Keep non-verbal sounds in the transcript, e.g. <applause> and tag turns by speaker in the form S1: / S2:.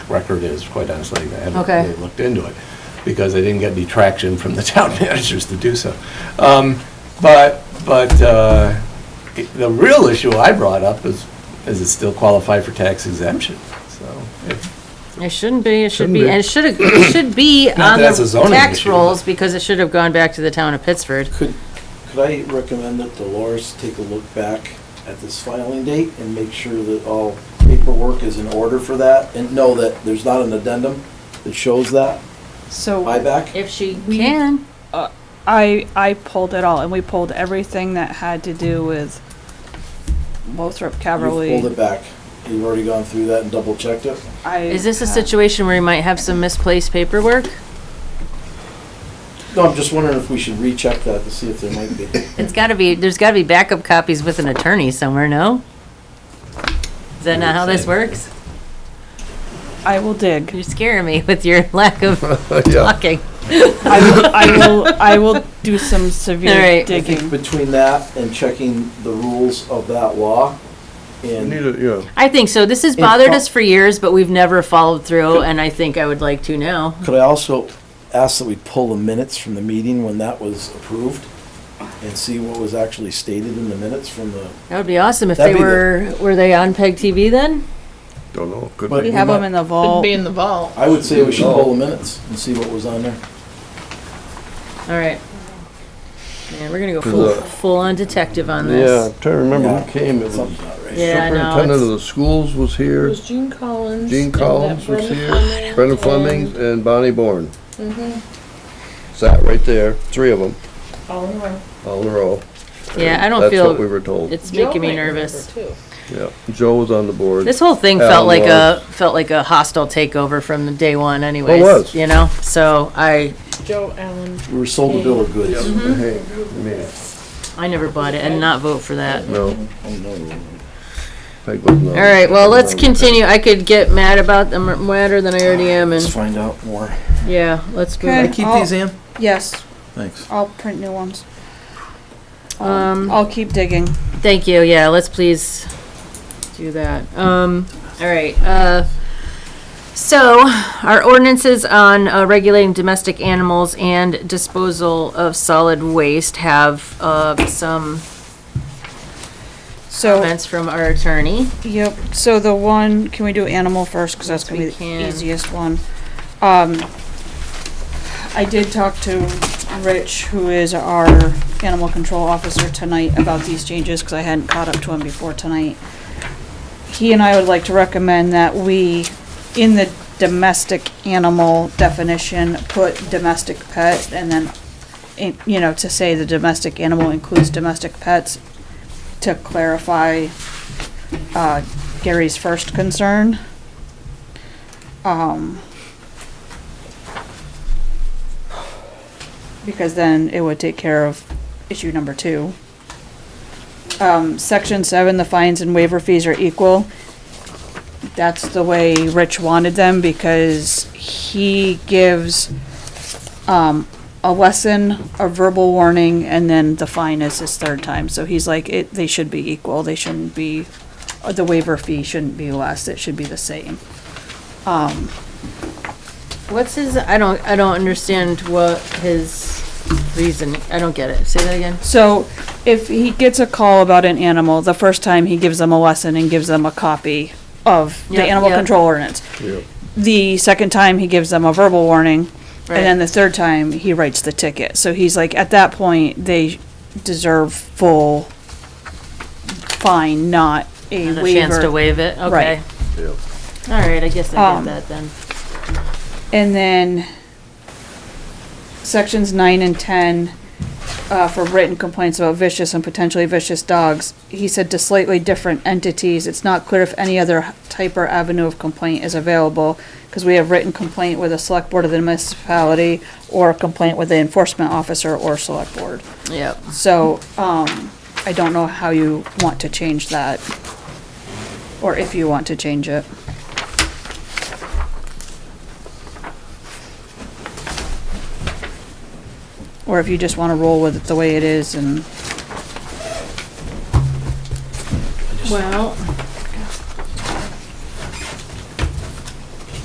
S1: record is, quite honestly. I haven't
S2: Okay.
S1: really looked into it, because I didn't get any traction from the <laughs> town managers to do so. Um, But, but uh, it- the real issue I brought up is, is it still qualify for tax exemption? So, if-
S2: It shouldn't be, it should
S3: Shouldn't
S2: be,
S3: be.
S2: and it should, have- it should be
S1: that
S2: on
S1: that's a
S2: the
S1: zoning
S2: tax
S1: issue,
S2: rolls because it should have gone back to the town of Pittsford.
S4: Could, could I recommend that Dolores take a look back at this filing date and make sure that all paperwork is in order for that? And know that there's not an addendum that shows that
S5: So
S4: buyback?
S2: If she
S5: We-
S2: can,
S5: I, I pulled it all, and we pulled everything that had to do with Lothrop
S4: You pulled
S5: Caverly.
S4: it back. You've already gone through that and double checked it?
S2: is this a situation where you might have some misplaced paperwork?
S4: No, I'm just wondering if we should recheck that to see if there might be.
S2: It's gotta be, there's gotta be backup copies with an attorney somewhere, no? Is that not how this works?
S5: I
S2: <laughs>
S5: will dig.
S2: You're scaring me with your <laughs> lack of
S3: <laughs> Yeah.
S2: talking.
S5: I will, I will, I will do some severe
S2: Alright.
S4: I think
S5: digging.
S4: between that and checking the rules of that law
S3: We need
S4: and
S3: a, yeah,
S2: I think so. This has
S4: It
S2: bothered
S4: fo-
S2: us for years, but we've never followed through, and I think I would like to now.
S4: Could I also ask that we pull the minutes from the meeting when that was approved? And see what was actually stated in the minutes from the,
S2: That would be awesome if they
S4: That'd be
S2: were, were they on PEG TV then?
S3: don't know, could
S4: But-
S5: We
S3: be.
S5: have them in the vault.
S6: be in the vault.
S4: I would say we should pull the minutes and see what was on there.
S2: All right. Man, we're gonna go full,
S3: Cause, uh,
S2: full-on detective on
S3: Yeah,
S2: this.
S3: I'm trying to remember
S4: Yeah.
S3: who came, it was
S4: Something's not right.
S2: Yeah, I know,
S3: superintendent
S2: it's-
S3: of the schools was
S6: It
S3: here,
S6: was Gene Collins.
S3: Gene
S6: and that
S3: Collins was
S6: Brenda
S3: here,
S6: Fleming
S3: Brenda
S6: and
S3: Flemings, and Bonnie Bourne.
S2: Mm-hmm.
S6: Mhm.
S3: Sat right there, three of them,
S6: Colin Roy.
S3: all in a row.
S2: Yeah, I don't
S3: That's what we
S2: feel,
S3: were told,
S2: it's
S6: Joe
S2: making me
S6: might remember,
S2: nervous.
S6: too.
S3: yeah. Joe was on the board.
S2: This whole thing felt
S3: Alan
S2: like a,
S3: was.
S2: felt like a hostile takeover from the day one anyways,
S3: was.
S2: you know? So I,
S6: Joe Allen.
S4: We were sold a bill of goods.
S3: Hey, man,
S2: I never bought it and not vote for that.
S3: no,
S4: Oh, no.
S3: Peg was not.
S2: All right, well, let's continue. I could get mad about, the am madder than I already am
S4: Let's
S2: and,
S4: find out more.
S2: yeah, let's
S5: Okay.
S2: move.
S4: Keep
S5: I'll-
S4: these in?
S5: Yes,
S4: Thanks.
S5: I'll print new ones.
S2: Um,
S5: I'll keep digging.
S2: Thank you, yeah, let's please do that. Um, all right, uh, so our ordinances on uh, regulating domestic animals and disposal of solid waste have, uh, some
S5: So,
S2: comments from our attorney.
S5: yep, so the one, can we do animal first, because that's gonna be
S2: Yes, we
S5: the
S2: can.
S5: easiest one. Um, I did talk to Rich, who is our animal control officer tonight, about these changes, because I hadn't caught up to him before tonight. He and I would like to recommend that we, in the domestic animal definition, put domestic pet, and then, in- you know, to say the domestic animal includes domestic pets, to clarify uh, Gary's first concern. Um, because then it would take care of issue number two. Um, section seven, the fines and waiver fees are equal. That's the way Rich wanted them because he gives, um, a lesson, a verbal warning, and then the fine is his third time. So he's like, it, they should be equal. They shouldn't be, uh, the waiver fee shouldn't be less. It should be the same. Um,
S2: What's his, I don't, I don't understand what his reason, I don't get it. Say that again.
S5: So if he gets a call about an animal, the first time he gives them a lesson and gives them a copy of the
S2: Yep,
S5: animal
S2: yep.
S5: control ordinance.
S3: Yeah.
S5: The second time he gives them a verbal warning, and then
S2: Right.
S5: the third time he writes the ticket. So he's like, at that point, they deserve full fine, not a
S2: Not a chance to
S5: waiver.
S2: waive it,
S5: Right.
S2: okay. All right, I guess I
S5: Um,
S2: get that then.
S5: And then sections nine and ten, uh, for written complaints about vicious and potentially vicious dogs. He said to slightly different entities, it's not clear if any other type or avenue of complaint is available. Cause we have written complaint with the select board of the municipality or a complaint with the enforcement officer or select board.
S2: Yep.
S5: So, um, I don't know how you want to change that. Or if you want to change it. Or if you just wanna roll with it the way it is and,
S2: Well,